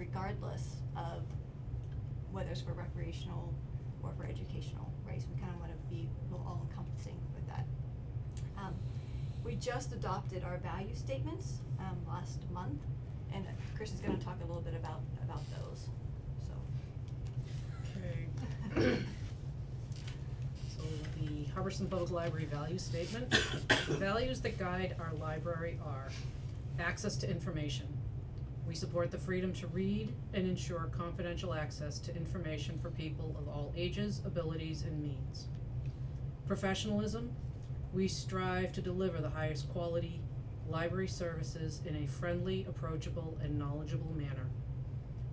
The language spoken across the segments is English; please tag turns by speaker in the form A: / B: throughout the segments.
A: regardless of whether it's for recreational or for educational, right? So we kind of want to be real all encompassing with that. Um, we just adopted our value statements, um, last month, and Chris is gonna talk a little bit about, about those, so.
B: Okay. So the Hubbardson Public Library value statement, the values that guide our library are access to information. We support the freedom to read and ensure confidential access to information for people of all ages, abilities, and means. Professionalism, we strive to deliver the highest quality library services in a friendly, approachable, and knowledgeable manner.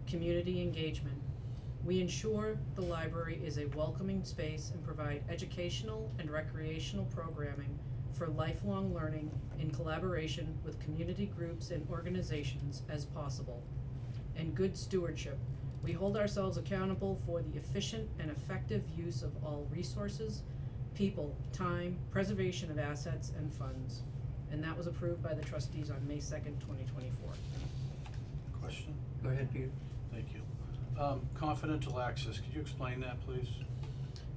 B: Community engagement, we ensure the library is a welcoming space and provide educational and recreational programming for lifelong learning in collaboration with community groups and organizations as possible. And good stewardship, we hold ourselves accountable for the efficient and effective use of all resources, people, time, preservation of assets and funds. And that was approved by the trustees on May second, twenty twenty-four.
C: Question?
D: Go ahead, Peter.
C: Thank you. Um, confidential access, could you explain that, please?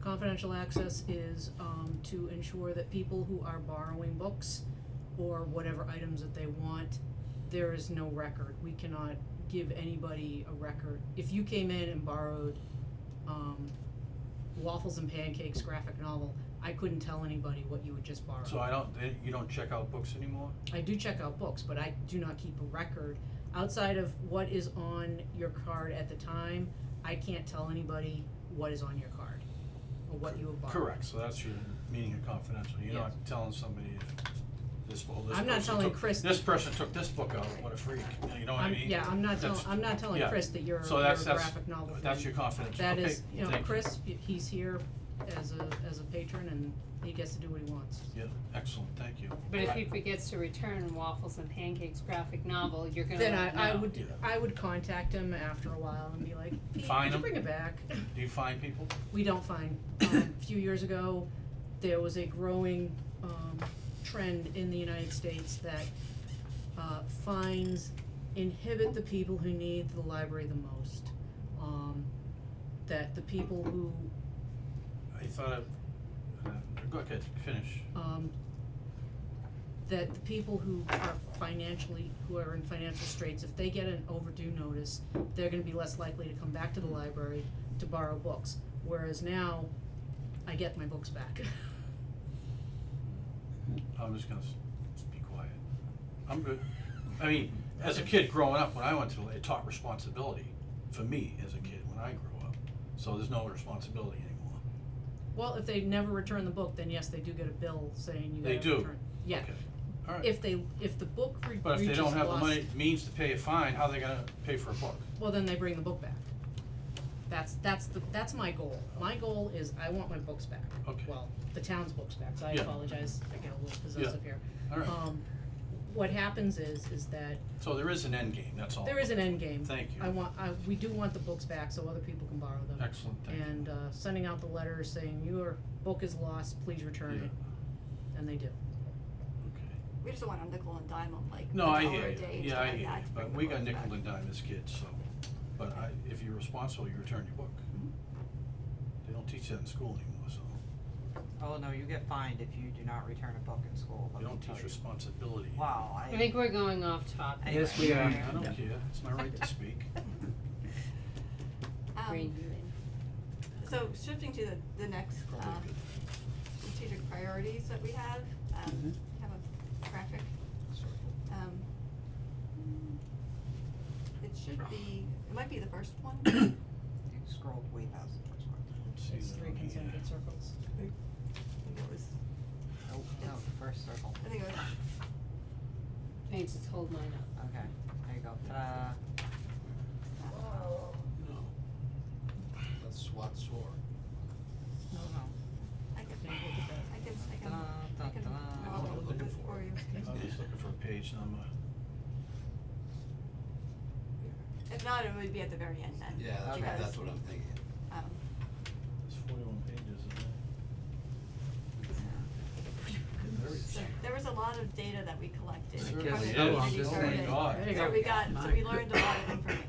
B: Confidential access is um to ensure that people who are borrowing books or whatever items that they want, there is no record. We cannot give anybody a record. If you came in and borrowed um waffles and pancakes graphic novel, I couldn't tell anybody what you had just borrowed.
C: So I don't, they, you don't check out books anymore?
B: I do check out books, but I do not keep a record outside of what is on your card at the time. I can't tell anybody what is on your card or what you have borrowed.
C: Correct, so that's your meaning of confidential,
B: Yes.
C: you're not telling somebody if this, well, this
B: I'm not
C: person
B: telling
C: took,
B: Chris-
C: this person took this book out, what a freak, you know what I
B: I'm-
C: mean?
B: yeah, I'm not telling,
C: That's-
B: I'm not telling
C: yeah.
B: Chris that you're,
C: So
B: you're a
C: that's, that's,
B: graphic novel fan.
C: that's your confidential,
B: That
C: okay,
B: is, you know,
C: thank
B: Chris, y- he's here as a, as a patron and he gets to do what he wants.
C: Yeah, excellent, thank you.
E: But if he
C: I-
E: forgets to return waffles and pancakes graphic novel, you're gonna
B: Then
E: let him
B: I, I
E: know.
B: would,
C: Yeah.
B: I would contact him after a while and be like, "Pete, could
C: Fine
B: you
C: him.
B: bring it back?
C: Do you find people?
B: We don't find, um, a few years ago, there was a growing, um, trend in the United States that, uh, fines inhibit the people who need the library the most. Um, that the people who
C: I thought of, uh, go ahead, finish.
B: um, that the people who are financially, who are in financial straits, if they get an overdue notice, they're gonna be less likely to come back to the library to borrow books, whereas now, I get my books back.
C: I'm just gonna s- be quiet. I'm good. I mean, as a kid growing up, when I went to, it taught responsibility for me as a kid when I grew up. So there's no responsibility anymore.
B: Well, if they never return the book, then yes, they do get a bill saying you
C: They
B: gotta
C: do.
B: return. Yeah,
C: Okay. All right.
B: if they, if the book re- reaches
C: But if they don't have the
B: lost-
C: money, means to pay a fine, how are they gonna pay for a book?
B: Well, then they bring the book back. That's, that's the, that's my goal. My goal is I want my books back.
C: Okay.
B: Well, the town's books back, so I
C: Yeah.
B: apologize, I get a little possessive here.
C: All right.
B: Um, what happens is, is that
C: So there is an end game, that's all.
B: there is an end game.
C: Oh. Thank you.
B: I want, I, we do want the books back so other people can borrow them.
C: Excellent, thank you.
B: And, uh, sending out the letter saying your book is lost, please return
C: Yeah.
B: it, and they do.
C: Okay.
A: We just don't want to nickel and dime them like
C: No, I
A: a
C: hear
A: dollar a
C: you.
A: day and
C: Yeah,
A: stuff
C: I
A: like
C: hear
A: that
C: you.
A: to bring
C: But
A: the
C: we
A: books
C: got nickel
A: back.
C: and dime as kids, so. But I, if you're responsible, you return your book. They don't teach that in school anymore, so.
F: Oh, no, you get fined if you do not return a book in school, let
C: They
F: me
C: don't
F: tell
C: teach
F: you.
C: responsibility.
F: Wow, I.
E: I think we're going off topic.
D: Yes, we are.
C: I don't care, it's my right to speak.
A: Um,
E: Bring you in.
A: So shifting to the, the next,
C: Probably
A: um,
C: good.
A: strategic priorities that we have, um,
G: Mm-hmm.
A: have a graphic. Um, it should be, it might be the first one.
F: You scrolled way past the first one.
C: Let's see
B: It's
C: that
B: three
C: on here.
B: concentric circles.
A: I think it was,
F: Nope, no,
A: It's-
F: the first circle.
A: I think it was,
E: Hey, just hold mine up.
F: Okay, there you go, ta-da.
C: No.
G: That's SWAT sword.
F: No, no.
A: I can,
B: Maybe we'll get that.
A: I can, I can,
F: Da,
A: I
F: da,
A: can
F: da.
C: I'm
A: model
C: not looking
A: this
C: for
A: for you.
C: it. I'm just looking for a page number.
A: If not, it would be at the very end then.
G: Yeah, that's what,
A: because,
G: that's what I'm thinking.
A: Um,
C: There's forty-one pages in there. Very
A: so there was a lot of data that we collected
D: I
A: from
D: guess
A: the
D: so, I'm
A: community
D: just
A: survey.
D: saying.
C: Oh my God.
B: There you
A: So
B: go.
A: we got, so we learned a lot of